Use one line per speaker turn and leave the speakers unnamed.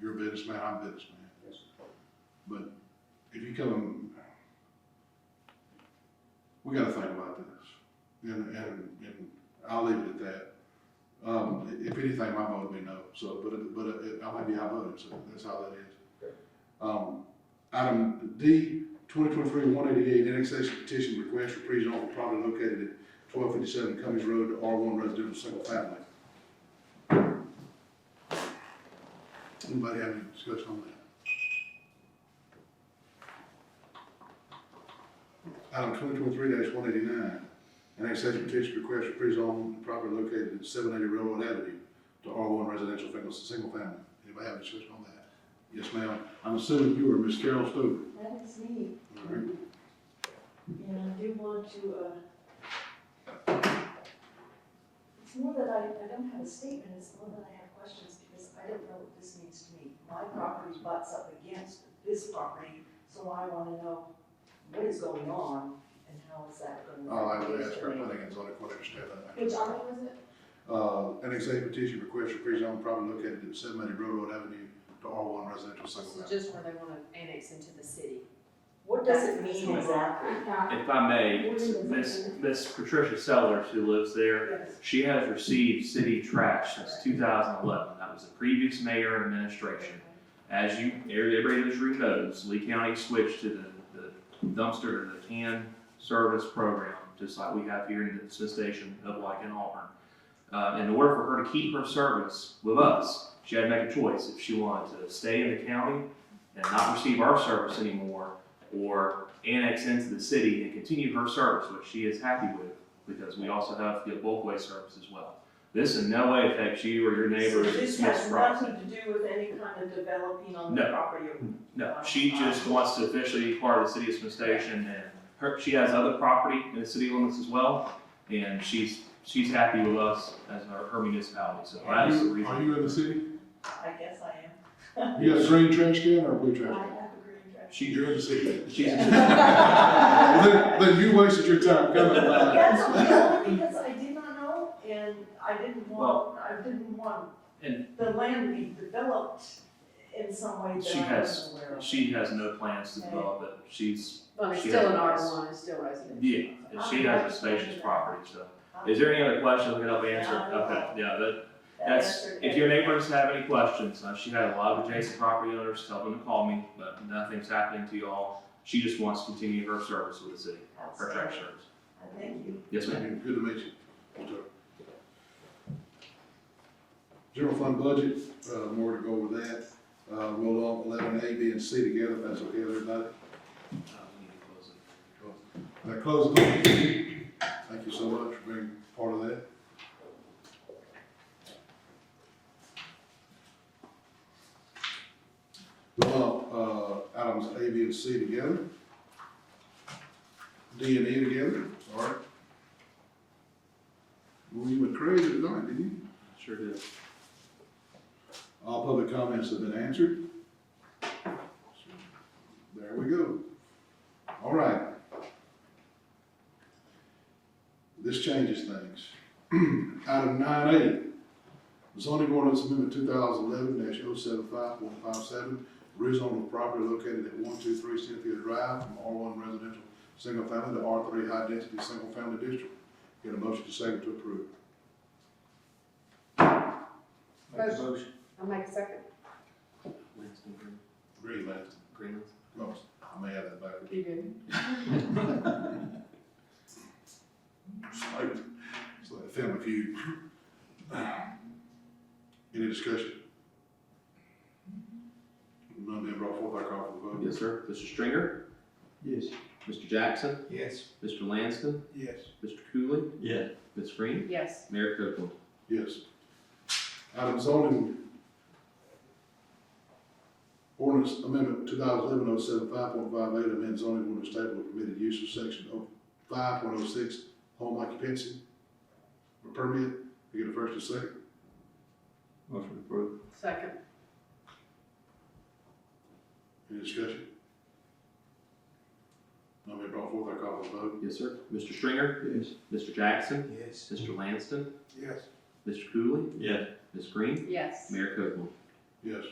you're a businessman, I'm a businessman. But if you come, we gotta think about this, and, and, and I'll leave it at that. Um, i- if anything, my vote would be no, so, but, it- but uh, it- I might be high voted, so that's how that is.
Okay.
Um, item D, twenty twenty-three one eighty-eight, annexation petition request for pre-zone for property located at twelve fifty-seven Cummings Road to R one residential single family. Anybody have any discussion on that? Item twenty twenty-three one eighty-nine, annexation petition request for pre-zone property located at seven eighty Railroad Avenue to R one residential single, single family. Anybody have any discussion on that? Yes, ma'am. I'm assuming you are Miss Carol Stover.
That is me,
All
Mm-hmm.
right.
and I do want to, uh, it's more that I, I don't have a statement, it's more that I have questions, because I don't know what this means to me. My property butts up against this property, so I wanna know what is going on and how is that gonna.
I'll have
affect
to
this
Oh, ask her
terrain.
planning and zoning coordinator to step in.
Which article is it?
Uh, annexation petition request for pre-zone property located at seven eighty Railroad Avenue to R one residential single
This is
family.
just where they wanna annex into the city.
What does it mean exactly?
Yeah.
If I may, Miss, Miss Patricia Sellers, who lives there,
Yes.
she has received city trash since two thousand eleven. That was the previous mayor administration. As you, everybody in this room knows, Lee County switched to the, the dumpster, the can service program, just like we have here in the Smith Station of like in Auburn. Uh, in order for her to keep her service with us, she had to make a choice if she wanted to stay in the county and not receive our service anymore, or annex into the city and continue her service, which she is happy with, because we also have the bulk waste service as well. This in no way affects you or your neighbors.
So This
Smith's
has
property.
nothing to do with any kind of developing on the
No.
property or
No, she just wants to officially be part of the city of Smith Station, and her, she has other property in the city limits as well, and she's, she's happy with us as her, her municipality, so
Are
that is the
you,
reason.
are you in the city?
I guess I am.
You got a green trash can or a blue
I
trash
have
can?
a green trash.
She,
You're in the city.
she's,
Well, Then, then you wasted your time coming.
That's only because I did not know, and I didn't want, I didn't want
And-
the land to be developed in some way that
She
I
has-
wasn't aware of.
she has no plans to develop it, she's,
But it's
She
still an R
has-
one, it's still residential.
yeah, and she has a spacious property, so. Is there any other questions we can help answer? Okay, yeah, that,
That
That's,
answered
if
it.
your neighbors have any questions, uh, she had a lot of adjacent property owners tell them to call me, but nothing's happening to y'all. She just wants to continue her service with the city, her
Outstanding.
trash service.
I Thank you.
Yes, ma'am.
Good to meet you. General fund budget, uh, more to go over that. Uh, roll on eleven A, B, and C together, if that's okay with everybody.
Uh, we need to close it.
That closes. Thank you so much for being part of that. Well, uh, items A, B, and C together. D and E together, sorry. Well, you went crazy tonight, didn't you?
Sure did.
All public comments have been answered. There we go. All right. This changes things. Item nine A, zoning ordinance amendment two thousand eleven dash oh seven five point five seven, rezone of property located at one two three Cynthia Drive from R one residential single family to R three high density single family district. Get a motion to second to approve.
Motion. I'll make a second.
Lanston Green,
Agree, Lance.
Greenlands.
No, I may have that backwards.
You good?
It's like, it's like a family feud. Any discussion? None being brought forth, I call for the vote.
Yes, sir. Mr. Stringer?
Yes.
Mr. Jackson?
Yes.
Mr. Lanston?
Yes.
Mr. Cooley?
Yes.
Ms. Green?
Yes.
Mayor Copeland?
Yes. Item zoning ordinance amendment two thousand eleven oh seven five point five eight, amend zoning ordinance table of permitted use of section oh five point oh six, home occupancy or permit. You get a first and second.
Motion approved.
Second.
Any discussion? None being brought forth, I call for the vote.
Yes, sir. Mr. Stringer?
Yes.
Mr. Jackson?
Yes.
Mr. Lanston?
Yes.
Mr. Cooley?
Yes.
Ms. Green?
Yes.
Mayor Copeland?
Yes.